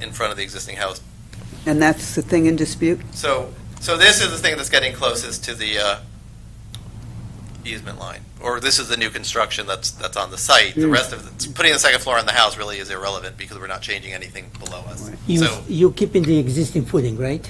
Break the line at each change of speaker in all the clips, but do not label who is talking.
in front of the existing house.
And that's the thing in dispute?
So, so this is the thing that's getting closest to the uh, easement line, or this is the new construction that's, that's on the site. The
Hmm.
rest of, the- putting the second floor on the house really is irrelevant because we're not changing anything below us.
You,
So
you keeping the existing footing, right?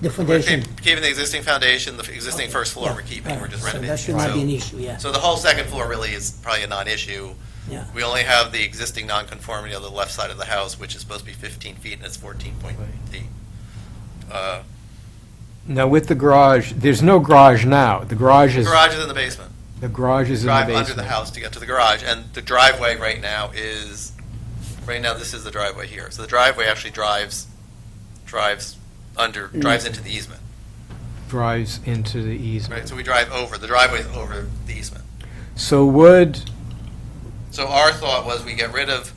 The
we're
foundation.
keep- keeping the existing foundation, the existing first floor
Yeah,
we're keeping,
right.
we're just
So
renovating.
That should not
So-
be an issue, yeah,
So the whole second floor really is probably a non-issue.
yeah.
We only have the existing nonconformity on the left side of the house, which is supposed to be 15 feet, and it's 14.8. Uh,
Now, with the garage, there's no garage now. The garage is,
Garage is in the basement.
the garage is in the
Drive
basement.
under the house to get to the garage, and the driveway right now is, right now, this is the driveway here. So the driveway actually drives, drives under,
Mm.
drives into the easement,
Drives into the
right?
easement.
So we drive over, the driveway's over the easement.
So would,
So our thought was we get rid of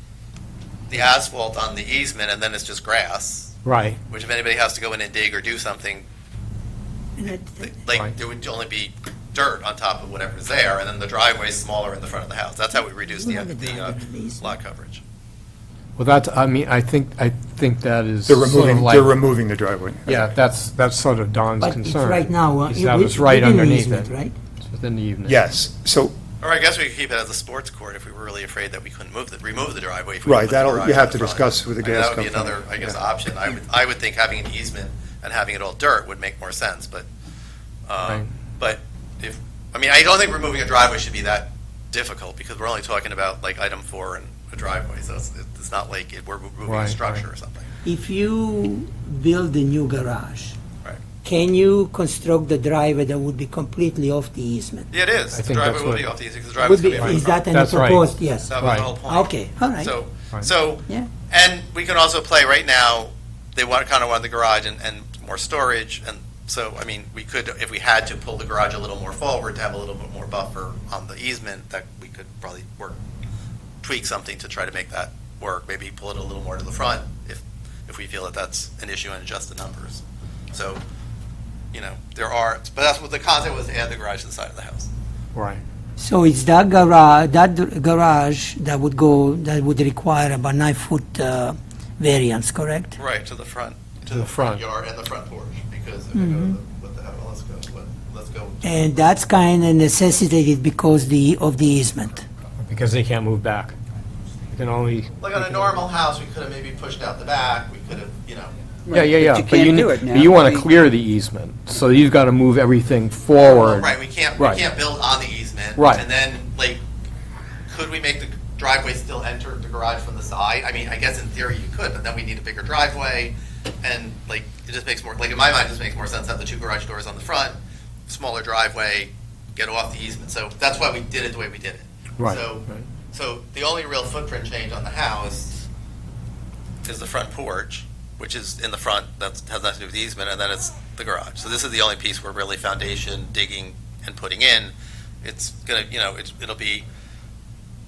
the asphalt on the easement, and then it's just grass.
right,
Which if anybody has to go in and dig or do something, th- like,
Right.
there would only be dirt on top of whatever's there, and then the driveway's smaller in the front of the house. That's how we reduce the, the uh, lot coverage.
well, that's, I mean, I think, I think that is
They're
sort of
removing,
like-
they're removing the driveway.
Yeah, that's, that's sort of Don's
But it's
concern.
right now, uh,
is
it-
that
wi-
it's right
within the
underneath
easement,
it.
right?
It's Within the easement.
Yes, so,
Or I guess we could keep it as a sports court if we were really afraid that we couldn't move the, remove the driveway. if we
Right,
put the
that'll- you
garage
have
out
to
front.
discuss with the
I mean,
gas
That would
company.
be another, I guess,
Yeah.
option. I would, I would think having an easement and having it all dirt would make more sense, but,
Right.
um, but if, I mean, I don't think removing a driveway should be that difficult, because we're only talking about like item four and a driveway, so it's, it's not like it- we're removing
Right,
a
right.
structure or something.
If you build a new garage,
Right.
can you construct the driveway that would be completely off the easement?
Yeah, it is.
I
The
think
driveway
that's
will
what-
be off the easement, because the
Would
driveway's
be,
going to be on the
is
front.
that any
That's right.
proposed, yes?
That was
Right.
the whole point.
Okay, all right.
So,
Right.
so,
Yeah.
and we can also play right now, they want, kind of want the garage and, and more storage, and so, I mean, we could, if we had to pull the garage a little more forward to have a little bit more buffer on the easement, that we could probably work, tweak something to try to make that work, maybe pull it a little more to the front, if, if we feel that that's an issue and adjust the numbers. So, you know, there are, but that's what the concept was, to add the garage to the side of the house.
Right.
So it's that garage, that dr- garage that would go, that would require about nine-foot uh, variance, correct?
Right, to the front.
To the front. Mm-hmm.
Yard and the front porch, because if we go to the, what the hell, let's go, what, let's go.
And that's kind of necessitated because the, of the easement.
Because they can't move back. They can only.
Like on a normal house, we could have maybe pushed out the back, we could have, you know,
Yeah, yeah, yeah.
But you can't
ne-
do it now.
But you want
We-
to clear the easement, so you've got to move everything forward.
right, we can't, we
Right.
can't build on the easement.
Right.
And then, like, could we make the driveway still enter the garage from the side? I mean, I guess in theory you could, but then we need a bigger driveway, and like, it just makes more, like, in my mind, it just makes more sense to have the two garage doors on the front, smaller driveway, get off the easement, so that's why we did it the way we did it.
Right,
So,
right.
so the only real footprint change on the house is the front porch, which is in the front, that has nothing to do with the easement, and then it's the garage. So this is the only piece where really foundation, digging, and putting in, it's gonna, you know, it's, it'll be,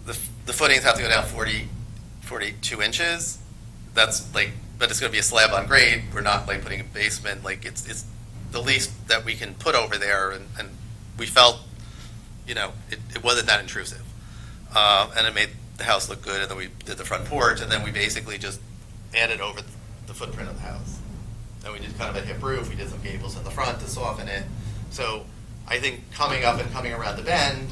the, the footings have to go down 40, 42 inches. That's like, but it's gonna be a slab on grade, we're not like putting a basement, like, it's, it's the least that we can put over there, and, and we felt, you know, it, it wasn't that intrusive uh, and it made the house look good, and then we did the front porch, and then we basically just added over th- the footprint of the house. And we did kind of a hip roof, we did some gables in the front to soften it. So I think coming up and coming around the bend,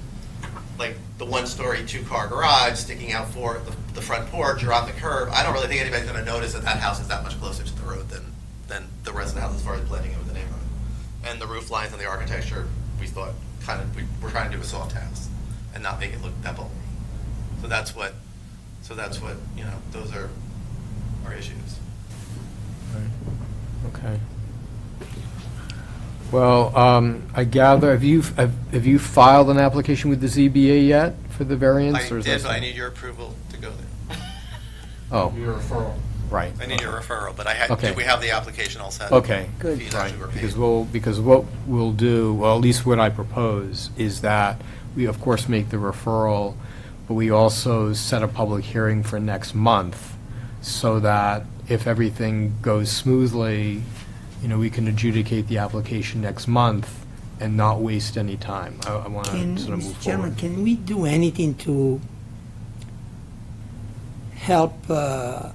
like the one-story, two-car garage sticking out for the, the front porch or on the curb, I don't really think anybody's gonna notice that that house is that much closer to the road than, than the rest of the house as far as blending in with the neighborhood. And the roof lines and the architecture, we thought, kind of, we, we're trying to do a soft house and not make it look that bulky. So that's what, so that's what, you know, those are our issues.
Okay. Well, um, I gather, have you, have have you filed an application with the ZBA yet for the
I
variance? or is that
did, but I
something-
need your approval to go there.
Oh. Your referral. Right.
I need your referral, but I had,
Okay.
did we have the application all set?
Okay.
Good.
Fees actually were paid.
Because we'll, because what we'll do, well, at least what I propose, is that we, of course, make the referral, but we also set a public hearing for next month, so that if everything goes smoothly, you know, we can adjudicate the application next month and not waste any time. I, I want
Can,
to sort of move
Mr. Chairman,
forward.
can we do anything to help uh,